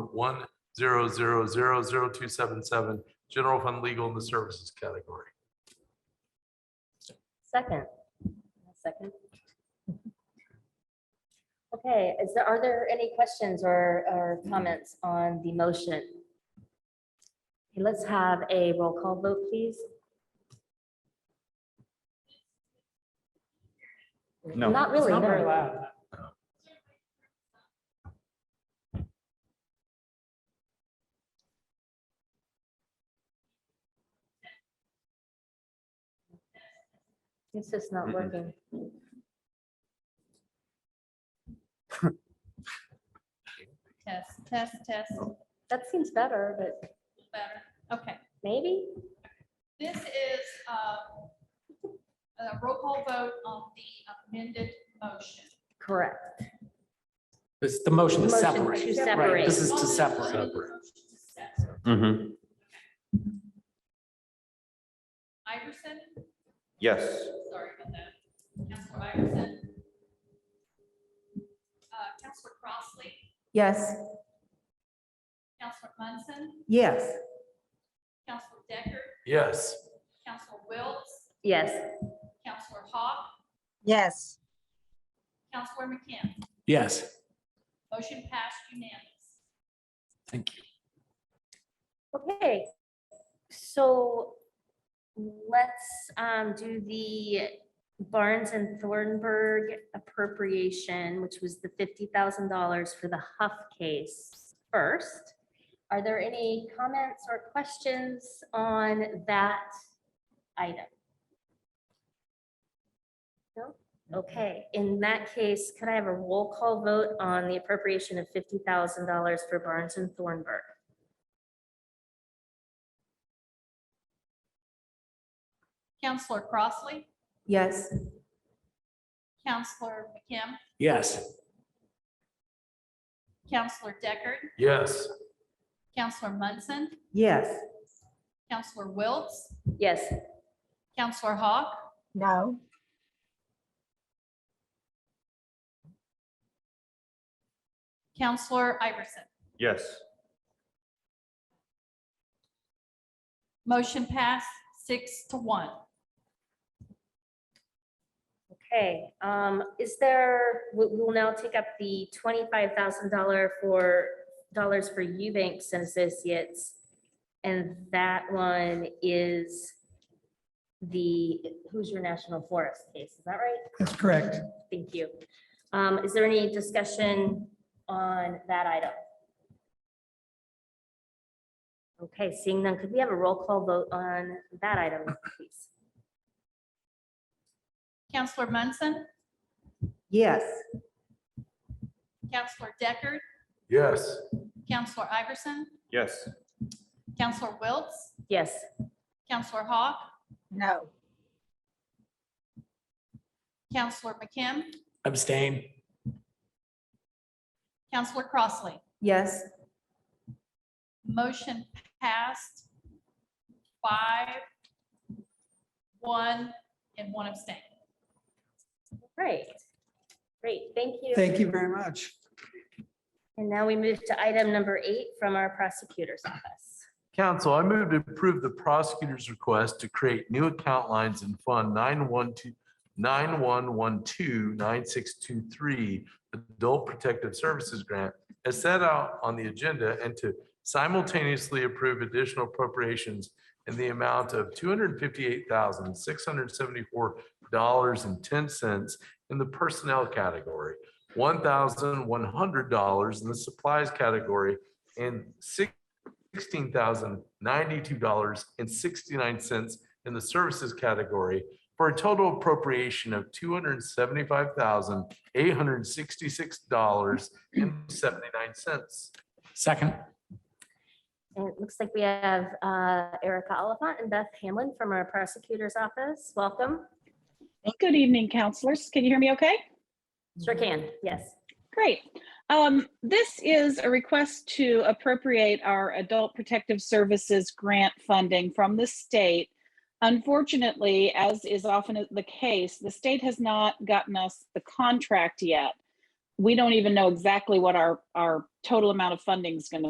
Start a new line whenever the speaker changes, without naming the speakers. one zero zero zero zero two seven seven, general fund legal in the services category.
Second. Second. Okay, is there, are there any questions or, or comments on the motion? Okay, Let's have a roll call vote, please.
No.
Not really,
Not very
no.
loud.
It's just not
Mm-mm.
working.
Test, test, test,
That seems better, but
better. Okay,
maybe?
this is um, a roll call vote on the amended motion.
Correct.
This is the motion to
Motion
separate.
To
Right,
separate.
this is to separate.
Mhm.
Iverson,
Yes.
sorry about that. Counselor Iverson. Uh, Counselor Crossley,
Yes.
Counselor Munson,
Yes.
Counselor Decker,
Yes.
Counselor Wiltz,
Yes,
Counselor Hawk,
yes,
Counselor McKim.
Yes,
Motion passed unanimous.
thank you.
okay. So let's um, do the Barnes and Thornburg appropriation, which was the fifty thousand dollars for the Huff case first. Are there any comments or questions on that item? No? Okay, in that case, could I have a roll call vote on the appropriation of fifty thousand dollars for Barnes and Thornburg?
Counselor Crossley,
Yes.
Counselor McKim,
Yes,
Counselor Deckard,
Yes.
Counselor Munson,
Yes.
Counselor Wiltz,
Yes,
Counselor Hawk,
no,
Counselor Iverson.
Yes.
Motion passed six to one.
Okay, um, is there, we will now take up the twenty-five thousand dollar for, dollars for Eubanks and Associates. And that one is the Hoosier National Forest case, is that right?
That's correct.
Thank you. Um, is there any discussion on that item? Okay, seeing none, could we have a roll call vote on that item, please?
Counselor Munson,
Yes.
Counselor Deckard,
Yes.
Counselor Iverson,
Yes.
Counselor Wiltz,
Yes.
Counselor Hawk,
no.
Counselor McKim,
abstain.
Counselor Crossley.
Yes.
Motion passed five, one, and one abstain.
Great. Great, thank you.
Thank you very much.
And now we move to item number eight from our prosecutor's office.
Council, I move to approve the prosecutor's request to create new account lines in Fund 912, 9112, 9623, Adult Protective Services Grant, as set out on the agenda, and to simultaneously approve additional appropriations in the amount of $258,674.10 in the personnel category, $1,100 in the supplies category, and six sixteen thousand ninety-two dollars and sixty-nine cents in the services category for a total appropriation of two hundred and seventy-five thousand eight hundred and sixty-six dollars and seventy-nine cents.
Second,
And it looks like we have uh, Erica Oliphant and Beth Hamlin from our prosecutor's office. Welcome.
Good evening, counselors. Can you hear me okay?
Sure can, yes.
Great. Um, this is a request to appropriate our Adult Protective Services grant funding from the state. Unfortunately, as is often the case, the state has not gotten us the contract yet. We don't even know exactly what our, our total amount of funding is going to